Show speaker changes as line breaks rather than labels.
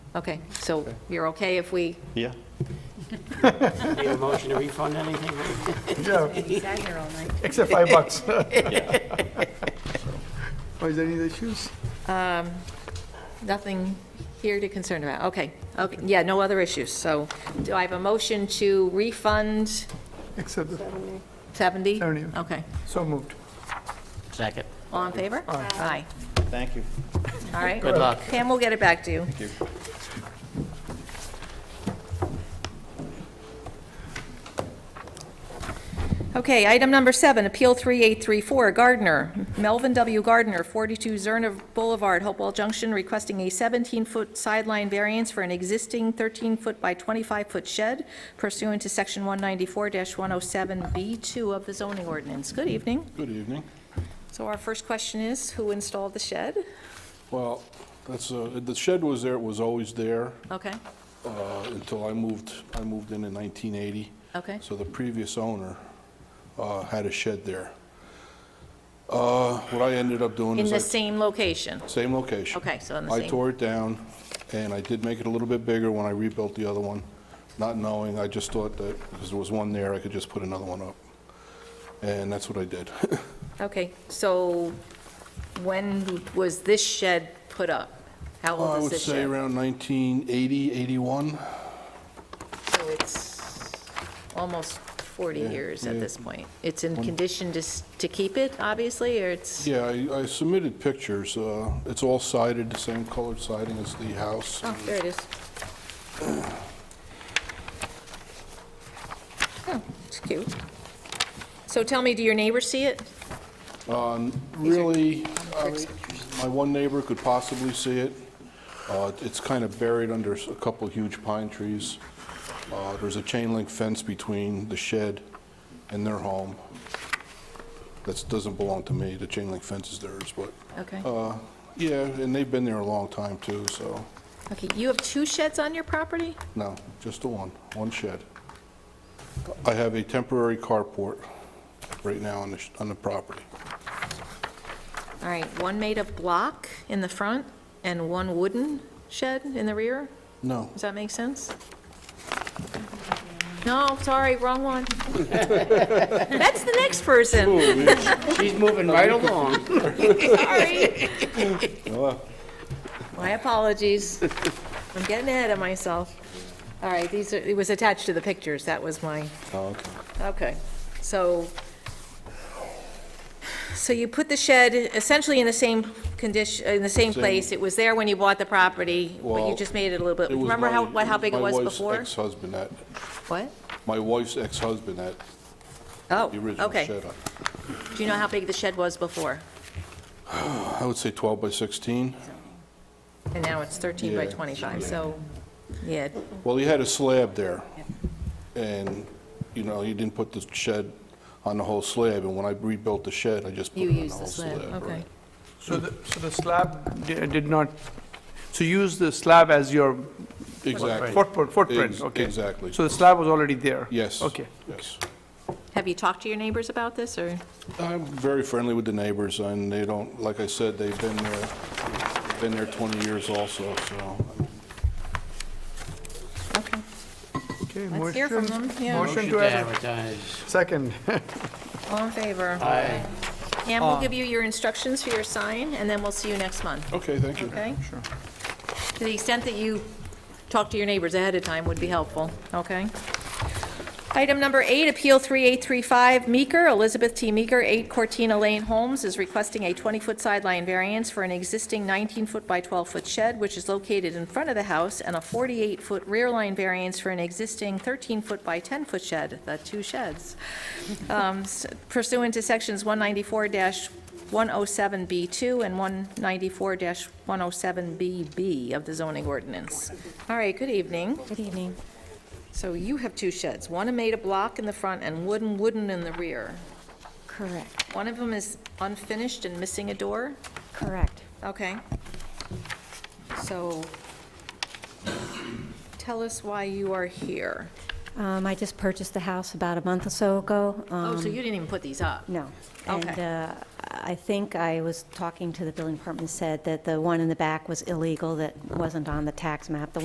Okay, so you're okay if we,
Yeah.
Need a motion to refund anything?
Yeah,
He sat here all night.
except five bucks. Oh, is there any issues?
nothing here to concern about? Okay, okay, yeah, no other issues. So do I have a motion to refund
Except,
70?
70.
Okay.
so moved.
Second.
All in favor? Aye.
Thank you.
All right.
Good luck.
Pam, we'll get it back to you.
Thank you.
Okay, item number seven, Appeal 3834, Gardner, Melvin W. Gardner, 42 Zerna Boulevard, Hopewell Junction, requesting a 17-foot sideline variance for an existing 13-foot by 25-foot shed pursuant to Section 194-107B2 of the zoning ordinance. Good evening.
Good evening.
So our first question is, who installed the shed?
Well, that's, uh, the shed was there, it was always there
Okay,
uh, until I moved, I moved in in 1980.
okay,
So the previous owner uh, had a shed there. Uh, What I ended up doing
in
is I...
the same location.
Same location.
Okay, so in the
I
same-
tore it down, and I did make it a little bit bigger when I rebuilt the other one, not knowing, I just thought that, because there was one there, I could just put another one up. And that's what I did.
Okay, so when was this shed put up? How
I
old is
would
this
say
shed?
around 1980, 81.
So it's almost 40
Yeah,
years at
yeah.
this point. It's in condition to, s- to keep it, obviously, or it's,
Yeah, I I submitted pictures. uh, It's all sided, the same colored siding as the house.
oh, there it is. Oh, it's cute. So tell me, do your neighbors see it?
Uh, Really, I mean, my one neighbor could possibly see it. Uh, It's kind of buried under s- a couple huge pine trees. Uh, There's a chain link fence between the shed and their home. That doesn't belong to me, the chain link fence is theirs, but,
Okay.
uh, yeah, and they've been there a long time too, so,
Okay, you have two sheds on your property?
no, just the one, one shed. I have a temporary carport right now on the, sh- on the property.
All right, one made of block in the front and one wooden shed in the rear?
No,
Does that make sense? No, sorry, wrong one. That's the next person,
She's moving right along.
sorry. My apologies. I'm getting ahead of myself. All right, these are, it was attached to the pictures, that was my,
Oh, okay.
okay. So, so you put the shed essentially in the same condition, in the same place. It was there when you bought the property, but you
Well,
just made it a little bit,
It was
remember how,
my-
what, how big it was
My
before?
wife's ex-husband that,
What?
my wife's ex-husband that,
Oh,
the original
okay.
shed.
Do you know how big the shed was before?
I would say 12 by 16.
And now it's 13 by
Yeah,
25, so, yeah,
Well, he had a slab there, and, you know, he didn't put the shed on the whole slab, and when I rebuilt the shed, I just put
you
it on the
use
whole
the slab,
slab.
okay.
right.
So the, so the slab di- did not, so you use the slab as your
Exactly,
footprint, footprint,
Ex-
okay?
exactly.
So the slab was already there?
yes.
Okay.
Yes.
Have you talked to your neighbors about this, or?
I'm very friendly with the neighbors, and they don't, like I said, they've been there, been there 20 years also, so.
Okay,
Okay,
let's hear from
motion-
them, yeah,
Motion
Motion
to
to
adver-
advertise.
Second.
all in favor.
Aye.
And we'll give you your instructions for your sign, and then we'll see you next month,
Okay, thank you.
okay? Sure. To the extent that you talk to your neighbors ahead of time would be helpful, okay? Item number eight, Appeal 3835 Meeker, Elizabeth T. Meeker, 8 Cortina Lane, Holmes, is requesting a 20-foot sideline variance for an existing 19-foot by 12-foot shed, which is located in front of the house, and a 48-foot rear line variance for an existing 13-foot by 10-foot shed, the two sheds, um, s- pursuant to Sections 194-107B2 and 194-107BB of the zoning ordinance. All right, good evening.
Good evening.
So you have two sheds, one made of block in the front and wooden, wooden in the rear.
Correct,
One of them is unfinished and missing a door?
correct.
Okay. So tell us why you are here.
Um, I just purchased the house about a month or so ago.
Oh, so
um,
you didn't even put these up?
No. And
Okay.
uh, I think I was talking to the building department, said that the one in the back was illegal, that wasn't on the tax map. The